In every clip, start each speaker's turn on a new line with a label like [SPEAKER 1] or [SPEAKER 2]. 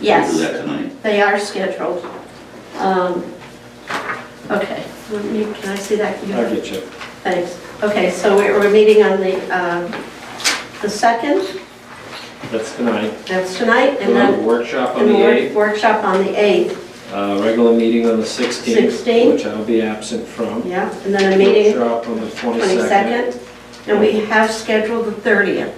[SPEAKER 1] Yes.
[SPEAKER 2] Do that tonight.
[SPEAKER 1] They are scheduled. Um, Okay, Let me- can I see that? You-
[SPEAKER 3] I'll get you.
[SPEAKER 1] Thanks. Okay, so we're we're meeting on the, um, the 2nd,
[SPEAKER 3] That's tonight.
[SPEAKER 1] that's tonight, and
[SPEAKER 3] We'll have a
[SPEAKER 1] then
[SPEAKER 3] workshop on
[SPEAKER 1] and
[SPEAKER 3] the
[SPEAKER 1] a
[SPEAKER 3] 8th,
[SPEAKER 1] wor- workshop on the 8th,
[SPEAKER 3] uh, regular meeting on the 16th,
[SPEAKER 1] 16th.
[SPEAKER 3] which I'll be absent from.
[SPEAKER 1] yeah, and then a meeting
[SPEAKER 3] Workshop on the 22nd.
[SPEAKER 1] 22nd, and we have scheduled the 30th.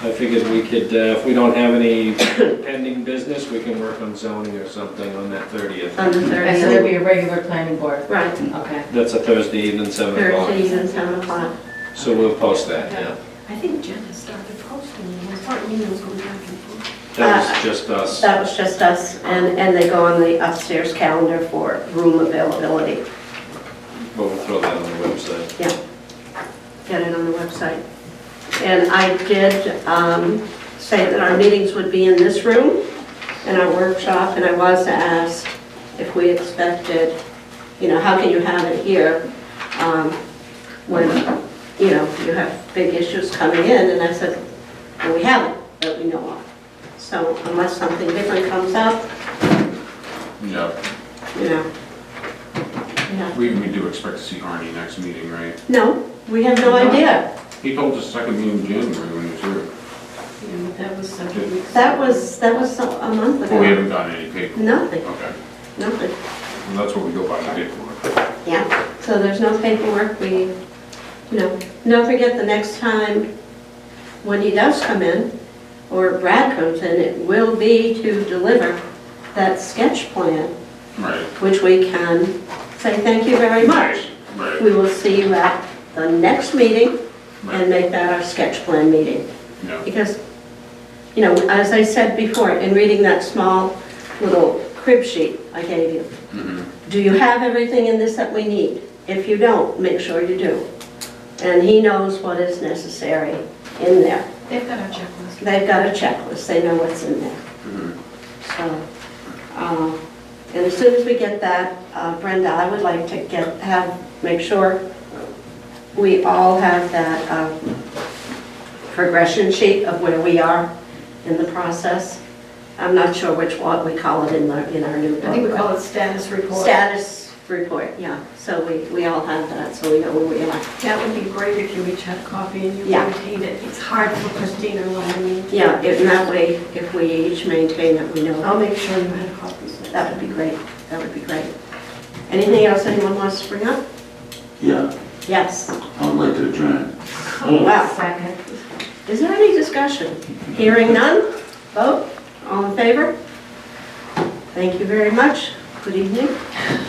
[SPEAKER 3] I figured we could, uh, if we don't have any pending business, we can work on zoning or something on that 30th.
[SPEAKER 1] On the
[SPEAKER 4] I said there'd
[SPEAKER 1] 30th.
[SPEAKER 4] be a regular planning board,
[SPEAKER 1] Right,
[SPEAKER 4] okay.
[SPEAKER 3] That's a Thursday evening, 7 o'clock.
[SPEAKER 1] 30th and 7 o'clock.
[SPEAKER 3] So we'll post that now.
[SPEAKER 5] I think Jen has started posting, and I thought Nina was going back and forth.
[SPEAKER 3] That
[SPEAKER 1] Uh,
[SPEAKER 3] was just us.
[SPEAKER 1] That was just us, and, and they go on the upstairs calendar for room availability.
[SPEAKER 3] But we'll throw that on the website.
[SPEAKER 1] Yeah, get it on the website. And I did um, say that our meetings would be in this room and our workshop, and I was asked if we expected, you know, how can you have it here um, when, you know, you have big issues coming in? And I said, well, we haven't, that we know of. So unless something different comes up,
[SPEAKER 6] Yeah,
[SPEAKER 1] you know, yeah.
[SPEAKER 6] we, we do expect to see Arnie next meeting, right?
[SPEAKER 1] No, we have no idea.
[SPEAKER 6] He told us second meeting in January when he was here.
[SPEAKER 4] Yeah, That was several weeks.
[SPEAKER 1] That was, that was a a month ago.
[SPEAKER 6] But we haven't gotten any paper.
[SPEAKER 1] Nothing,
[SPEAKER 6] Okay,
[SPEAKER 1] nothing,
[SPEAKER 6] well, that's what we go by the paperwork.
[SPEAKER 1] yeah. So there's no paperwork, we, you know, don't forget the next time when he does come in, or Brad comes in, it will be to deliver that sketch plan,
[SPEAKER 6] Right,
[SPEAKER 1] which we can say thank you very much.
[SPEAKER 6] right,
[SPEAKER 1] We will see you at the next meeting and
[SPEAKER 6] right,
[SPEAKER 1] make that our sketch plan meeting.
[SPEAKER 6] yeah,
[SPEAKER 1] Because, you know, as I said before, in reading that small little crib sheet I gave you,
[SPEAKER 6] mhm,
[SPEAKER 1] do you have everything in this that we need? If you don't, make sure you do. And he knows what is necessary in there.
[SPEAKER 5] They've got our checklist.
[SPEAKER 1] They've got a checklist, they know what's in there.
[SPEAKER 6] mhm.
[SPEAKER 1] So, um, and as soon as we get that, uh, Brenda, I would like to get, have, make sure we all have that um, progression sheet of where we are in the process. I'm not sure which one we call it in the, in our new book.
[SPEAKER 5] I think we
[SPEAKER 1] but-
[SPEAKER 5] call it status report.
[SPEAKER 1] Status report, yeah, so we, we all have that, so we know where we are.
[SPEAKER 5] That would be great if you each had a copy and you
[SPEAKER 1] Yeah.
[SPEAKER 5] maintained it. It's hard for Christina, what I mean.
[SPEAKER 1] Yeah, if in that way, if we each maintain it, we know,
[SPEAKER 5] I'll make sure you had copies. next
[SPEAKER 1] that would
[SPEAKER 5] time.
[SPEAKER 1] be great, that would be great. Anything else anyone wants to bring up?
[SPEAKER 2] Yeah,
[SPEAKER 1] Yes.
[SPEAKER 2] I would like to adjourn.
[SPEAKER 1] Wow,
[SPEAKER 4] Second.
[SPEAKER 1] is there any discussion? Hearing none, vote, all in favor? Thank you very much, good evening.